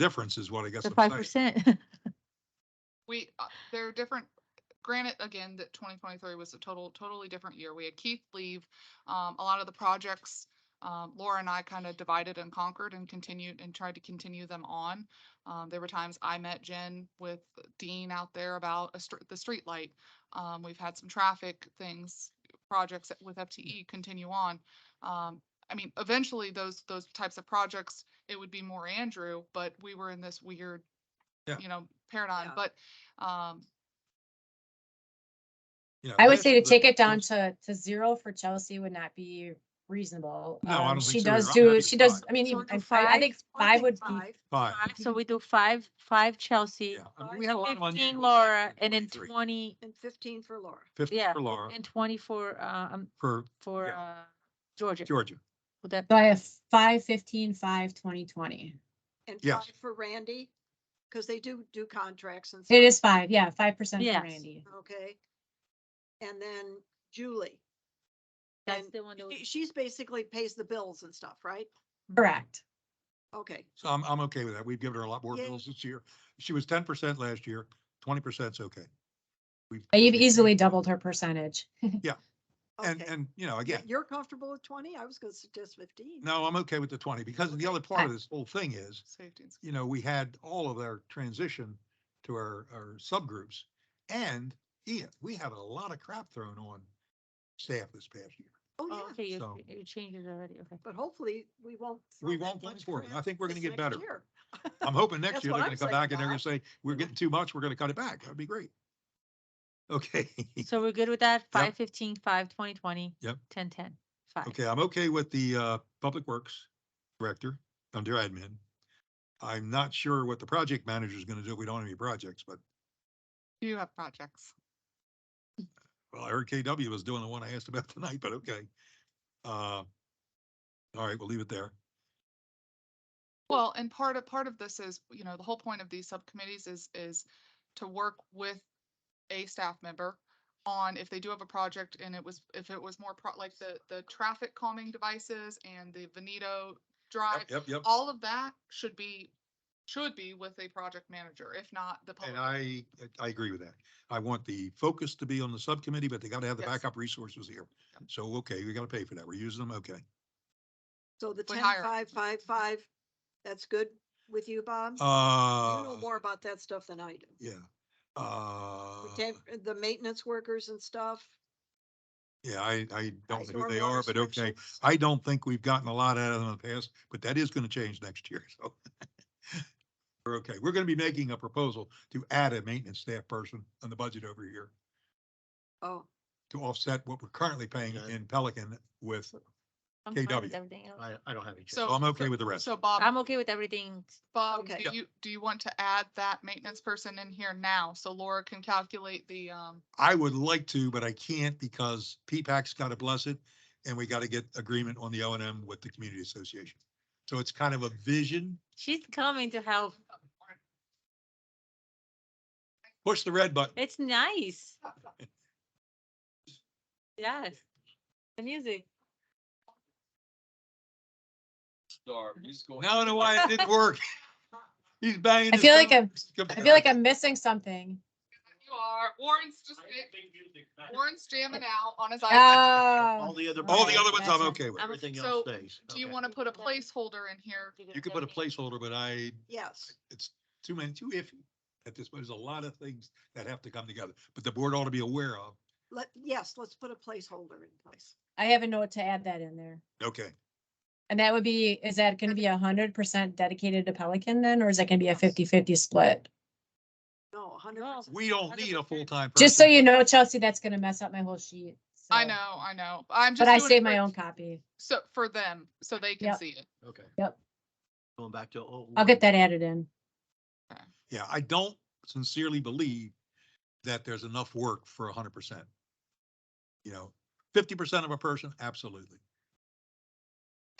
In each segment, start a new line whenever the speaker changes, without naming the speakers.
difference is what I guess.
the
I'm
five
saying.
percent.
We, uh, they're different, granted, again, that twenty twenty-three was a total, totally different year. We had Keith leave. Um, a lot of the projects, um, Laura and I kind of divided and conquered and continued and tried to continue them on. Um, there were times I met Jen with Dean out there about a str- the streetlight. Um, we've had some traffic things, projects that- with FTE continue on. Um, I mean, eventually those, those types of projects, it would be more Andrew, but we were in this weird,
Yeah.
you know, paradigm,
Yeah.
but um,
You know,
I would
that-
say to
that-
take it down to, to zero for Chelsea would not be reasonable.
No, I don't
Um,
think
She
so either.
does
I'm happy
do,
with
she does,
five.
I mean,
So do
even- I fi- I
five.
think
I
five
think
would be,
five.
Five.
Five
So we do five, five Chelsea,
Yeah, I'm-
Five,
we had a lot of
fifteen
unusual
Laura,
stuff in
and then
23.
twenty,
And fifteen for Laura.
yeah,
Fifteen for Laura,
and twenty for, uh, um,
for
for,
Yeah.
uh, Georgia.
Georgia.
Would that,
so I have five fifteen, five twenty twenty.
And
Yes.
five for Randy, because they do do contracts and.
It
stuff,
is five, yeah, five percent for
Yes.
Randy.
Okay. And then Julie.
that's
and
the one that
she-
was,
She's basically pays the bills and stuff, right?
Correct.
Okay,
So I'm, I'm okay with that. We've given her a lot more
Yeah.
bills this year. She was ten percent last year, twenty percent's okay. We've-
You've
we've-
easily doubled her percentage.
And,
okay.
and, you know,
Yeah,
again,
You're comfortable with twenty? I was gonna suggest fifteen.
no, I'm okay with the twenty, because the other part of this whole thing is,
safety. and
you know, we had all of our transition to our, our subgroups. And Ian, we had a lot of crap thrown on staff this past year.
Oh,
oh,
yeah,
okay, you,
so-
you changed it already, okay.
but hopefully we won't. throw
We
that
won't go
much
for it. I
crap
think we're gonna
this
get
next
better.
year.
I'm hoping next
That's
year
what
they're
I'm
gonna come
saying,
back and they're gonna
Bob.
say, we're getting too much, we're gonna cut it back. That'd be great. Okay,
So we're good with that, five fifteen, five twenty twenty.
Yep.
Ten ten, five.
okay, I'm okay with the uh, Public Works Director under admin. I'm not sure what the project manager is gonna do. We don't have any projects, but
Do you have projects?
well, I heard KW was doing the one I asked about tonight, but okay. Uh, All right, we'll leave it there.
Well, and part of, part of this is, you know, the whole point of these subcommittees is, is to work with a staff member on if they do have a project and it was, if it was more pro, like the, the traffic calming devices and the Veneto drive.
Yep, yep.
All of that should be, should be with a project manager, if not the public.
And I, I agree with that. I want the focus to be on the subcommittee, but they gotta have the
Yes.
backup resources here. So, okay, we gotta pay for that. We're using them, okay.
So the
We
ten,
hire.
five, five, five, that's good with you, Bob? You
Uh,
know more about that stuff than I do.
yeah. Uh,
The temp- The maintenance workers and stuff.
yeah, I, I don't know who they
stormwater
are, but okay.
restrictions.
I don't think we've gotten a lot out of them in the past, but that is gonna change next year, so. We're okay. We're gonna be making a proposal to add a maintenance staff person on the budget over here
Oh,
to offset what we're currently paying
Okay.
in Pelican with,
I'm fine
KW.
with everything. else.
I, I don't have any.
So-
so I'm okay with the rest.
So Bob.
I'm okay with everything.
Bob,
Okay.
do
Yeah.
you, do you want to add that maintenance person in here now so Laura can calculate the, um,
I would like to, but I can't because P-PAC's got to bless it and we got to get agreement on the O and M with the community association. So it's kind of a vision.
She's coming to help.
Push the red button.
It's nice. Yes. The music.
Star, he's going.
Now I know why it didn't work. He's banging.
I
his
feel like
thumb.
I'm, I feel like I'm missing something.
you are, Warren's just, Warren's jamming out on his iPad.
Oh.
All the other.
All the other ones I'm
That's
okay with.
Everything
So,
else stays.
Do you
Okay.
want to put a placeholder in here?
You could put a placeholder, but I,
yes.
it's too many, too iffy at this point. There's a lot of things that have to come together, but the board ought to be aware of.
Let, yes, let's put a placeholder in place.
I have a note to add that in there.
Okay.
And that would be, is that gonna be a hundred percent dedicated to Pelican then, or is that gonna be a 50-50 split?
No, a hundred
No.
percent.
We don't need a full-time.
Just so
person.
you know, Chelsea, that's gonna mess up my whole sheet.
I
so-
know, I know. I'm just.
But I
doing it
saved
for-
my own copy.
So, for them, so they can
Yep.
see it.
Okay.
Yep.
Going back to. oh,
I'll get that added in.
Yeah, I don't sincerely believe that there's enough work for hundred percent. You know, fifty percent of a person, absolutely.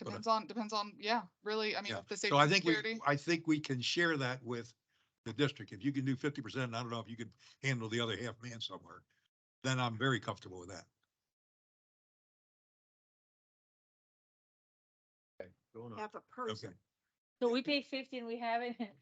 Okay.
Depends on, depends on, yeah, really, I mean,
Yeah.
if the
So
safety
I
and
think we,
security.
I think we can share that with the district. If you can do fifty percent, I don't know if you could handle the other half man somewhere, then I'm very comfortable with that.
okay, going up.
Half a person.
Okay.
So we pay fifteen, we have it.